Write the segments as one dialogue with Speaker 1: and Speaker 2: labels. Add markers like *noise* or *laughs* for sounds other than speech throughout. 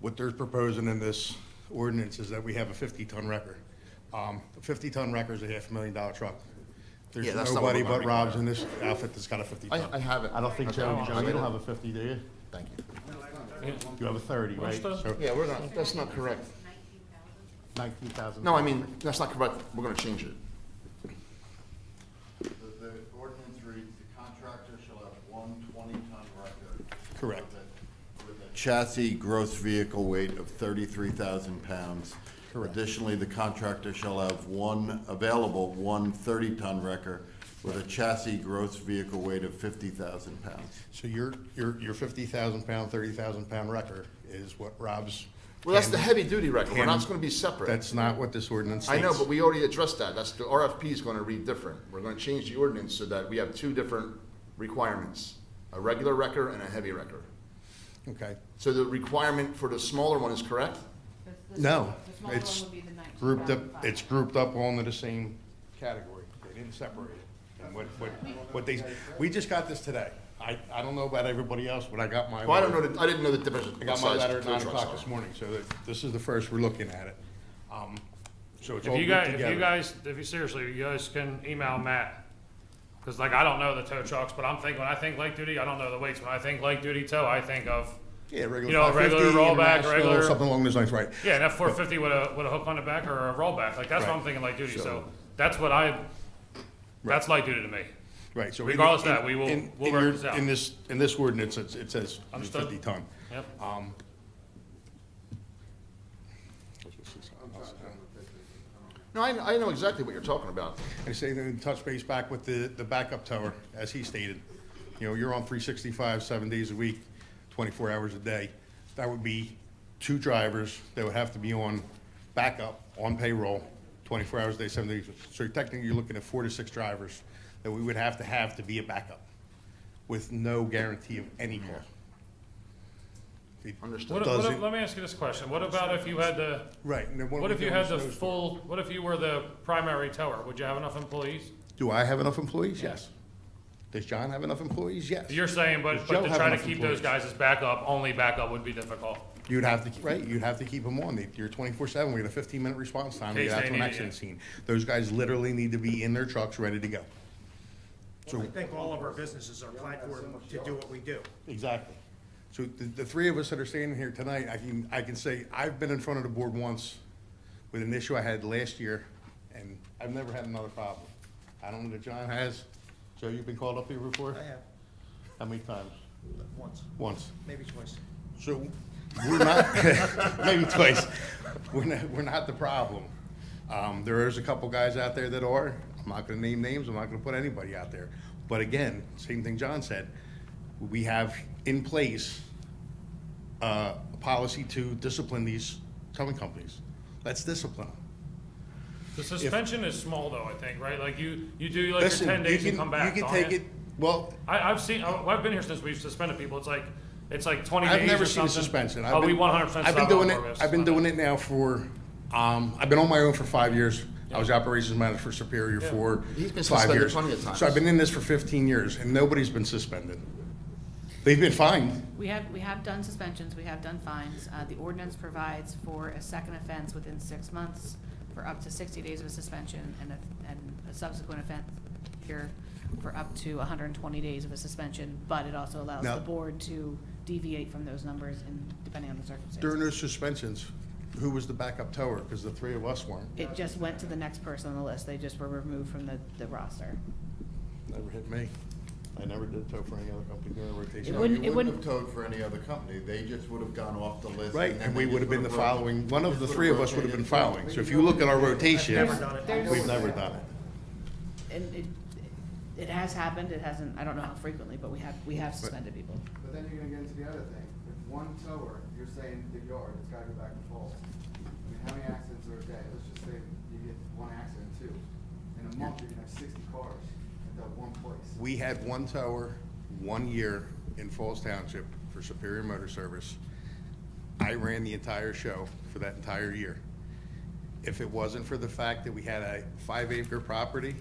Speaker 1: What they're proposing in this ordinance is that we have a 50-ton wrecker. Um, A 50-ton wrecker is a half a million dollar truck. There's
Speaker 2: Yeah, that's not what
Speaker 1: nobody
Speaker 2: we're gonna
Speaker 1: but Rob's in this outfit that's got a
Speaker 2: I, I
Speaker 1: 50-ton.
Speaker 2: have it.
Speaker 3: I don't think,
Speaker 2: Okay,
Speaker 3: Joe,
Speaker 2: I
Speaker 3: Joe, you
Speaker 2: get
Speaker 3: don't
Speaker 2: it.
Speaker 3: have a fifty, do you?
Speaker 2: Thank you.
Speaker 3: You have a thirty, right? So
Speaker 2: Yeah, we're not, that's not correct.
Speaker 3: nineteen thousand.
Speaker 2: No, I mean, that's not correct. We're gonna change it.
Speaker 4: The, the ordinance reads, the contractor shall have one twenty-ton record.
Speaker 1: Correct.
Speaker 4: with a- With a chassis gross vehicle weight of thirty-three thousand pounds.
Speaker 1: Correct.
Speaker 4: Additionally, the contractor shall have one available, one thirty-ton wrecker with a chassis gross vehicle weight of fifty thousand pounds.
Speaker 1: So your, your, your 50,000 pound, 30,000 pound wrecker is what Rob's.
Speaker 2: Well, that's the
Speaker 1: can-
Speaker 2: heavy duty record. We're not, it's gonna be separate.
Speaker 1: That's not what this ordinance
Speaker 2: I
Speaker 1: states.
Speaker 2: know, but we already addressed that. That's, the RFP is gonna read different. We're gonna change the ordinance so that we have two different requirements, a regular record and a heavy record.
Speaker 1: Okay.
Speaker 2: So the requirement for the smaller one is correct?
Speaker 1: No,
Speaker 5: The smaller
Speaker 1: it's
Speaker 5: one would be the 19,500.
Speaker 1: grouped up, it's grouped up all into the same category. They didn't separate it. And what, what, what they, we just got this today. I, I don't know about everybody else, but I got my.
Speaker 2: Well, I don't know, the- I didn't know the difference.
Speaker 1: I
Speaker 2: what
Speaker 1: got my
Speaker 2: size
Speaker 1: letter at
Speaker 2: tow
Speaker 1: nine
Speaker 2: trucks
Speaker 1: o'clock
Speaker 2: are.
Speaker 1: this morning, so that, this is the first we're looking at it. Um, So it's all
Speaker 6: If you
Speaker 1: grouped
Speaker 6: guys, if you
Speaker 1: together.
Speaker 6: guys, if you seriously, you guys can email Matt. Cause like, I don't know the tow trucks, but I'm thinking, when I think light duty, I don't know the weights. When I think light duty tow, I think of,
Speaker 1: Yeah, regular.
Speaker 6: you know,
Speaker 1: 550,
Speaker 6: regular rollback,
Speaker 1: international,
Speaker 6: regular-
Speaker 1: Something along those lines, right.
Speaker 6: yeah, an F four fifty with a, with a hook on the back or a rollback. Like, that's what I'm
Speaker 1: Right.
Speaker 6: thinking light duty. So
Speaker 1: So-
Speaker 6: that's what I, that's light duty to me.
Speaker 1: Right, so. in-
Speaker 6: Regardless of that,
Speaker 1: in-
Speaker 6: we will-
Speaker 1: in-
Speaker 6: we'll
Speaker 1: in
Speaker 6: work
Speaker 1: your-
Speaker 6: this out.
Speaker 1: In this, in this ordinance, it's- it says
Speaker 6: Understood.
Speaker 1: fifty ton.
Speaker 6: Yep.
Speaker 1: Uh,
Speaker 2: No, I, I know exactly what you're talking about.
Speaker 1: I say then touch base back with the, the backup tower, as he stated. You know, you're on three sixty-five, seven days a week, twenty-four hours a day. That would be two drivers that would have to be on backup, on payroll, twenty-four hours a day, seven days. So technically, you're looking at four to six drivers that we would have to have to be a backup with no guarantee of any call. It
Speaker 2: Understood.
Speaker 6: What,
Speaker 1: doesn't-
Speaker 6: what, let me ask you this question. What about if you had the,
Speaker 1: Right. and then
Speaker 6: what
Speaker 1: are
Speaker 6: if
Speaker 1: we
Speaker 6: you
Speaker 1: doing
Speaker 6: had the
Speaker 1: with those?
Speaker 6: full, what if you were the primary tower? Would you have enough employees?
Speaker 1: Do I have enough employees?
Speaker 6: Yeah.
Speaker 1: Yes. Does John have enough employees? Yes.
Speaker 6: You're saying,
Speaker 1: Does
Speaker 6: but,
Speaker 1: Joe
Speaker 6: but to
Speaker 1: have
Speaker 6: try to
Speaker 1: enough
Speaker 6: keep those
Speaker 1: employees?
Speaker 6: guys as backup, only backup would be difficult.
Speaker 1: You'd have to, right, you'd have to keep them on. They- You're twenty-four seven. We got a fifteen-minute response time. to
Speaker 6: Case
Speaker 1: get out
Speaker 6: they
Speaker 1: to an
Speaker 6: need it,
Speaker 1: accident
Speaker 6: yeah.
Speaker 1: scene. Those guys literally need to be in their trucks, ready to go. So,
Speaker 7: I think all of our businesses are platformed to do what we do.
Speaker 1: exactly. So the, the three of us that are standing here tonight, I can, I can say, I've been in front of the board once with an issue I had last year, and I've never had another problem. I don't know that John has. Joe, you've been called up here before?
Speaker 7: I have,
Speaker 1: How many times?
Speaker 7: once,
Speaker 1: Once.
Speaker 7: maybe twice.
Speaker 1: So we're not, *laughs* maybe twice, we're not, we're not the problem. Um, there is a couple guys out there that are, I'm not gonna name names, I'm not gonna put anybody out there. But again, same thing John said, we have in place, uh, a policy to discipline these towing companies. Let's discipline them.
Speaker 6: The suspension is small though, I think, right? Like you, you do like
Speaker 1: Listen,
Speaker 6: your ten
Speaker 1: you
Speaker 6: days
Speaker 1: can-
Speaker 6: and come back.
Speaker 1: You can
Speaker 6: don't
Speaker 1: take
Speaker 6: ya?
Speaker 1: it, well,
Speaker 6: I, I've seen, I- I've been here since we've suspended people. It's like, it's like twenty days or
Speaker 1: I've
Speaker 6: something.
Speaker 1: never seen a suspension. I've
Speaker 6: Oh,
Speaker 1: been-
Speaker 6: we one hundred percent.
Speaker 1: I've been doing it, I've been doing it now for, um, I've been on my own for five years. I was operations manager for Superior for
Speaker 2: He's been
Speaker 1: five
Speaker 2: suspended
Speaker 1: years.
Speaker 2: plenty of times.
Speaker 1: So I've been in this for fifteen years and nobody's been suspended. They've been fined.
Speaker 5: We have, we have done suspensions, we have done fines. Uh, the ordinance provides for a second offense within six months for up to sixty days of suspension and a, and a subsequent offense here for up to hundred and twenty days of a suspension, but it also allows
Speaker 1: Now-
Speaker 5: the board to deviate from those numbers and depending on the
Speaker 1: During
Speaker 5: circumstances.
Speaker 1: those suspensions, who was the backup tower? Because the three of us weren't.
Speaker 5: It just went to the next person on the list, they just were removed from the, the roster.
Speaker 1: Never hit me. I never did tow for any other company during rotation.
Speaker 5: It wouldn't-
Speaker 4: You
Speaker 5: it
Speaker 4: wouldn't
Speaker 5: wouldn't-
Speaker 4: have towed for any other company, they just would have gone off the list.
Speaker 1: Right,
Speaker 4: then
Speaker 1: and we
Speaker 4: they
Speaker 1: would have
Speaker 4: just
Speaker 1: been the
Speaker 4: would have ro-
Speaker 1: following, one of
Speaker 4: just
Speaker 1: the
Speaker 4: would
Speaker 1: three of us would have been
Speaker 4: rotated.
Speaker 1: following. So if you look at our rotation,
Speaker 7: Never done it.
Speaker 1: we've never done it.
Speaker 5: And it, it has happened, it hasn't, I don't know how frequently, but we have, we have suspended people.
Speaker 8: But then you're gonna get into the other thing, if one tower, you're saying the yard, it's gotta go back and forth. I mean, how many accidents are a day? Let's just say you get one accident, two. In a month, you're gonna have sixty cars at that one place.
Speaker 1: We had one tower, one year in Falls Township for Superior Motor Service. I ran the entire show for that entire year. If it wasn't for the fact that we had a five acre property,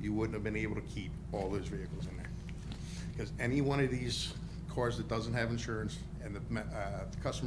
Speaker 1: you wouldn't have been able to keep all those vehicles in there. Because any one of these cars that doesn't have insurance and the, ma- uh, the customer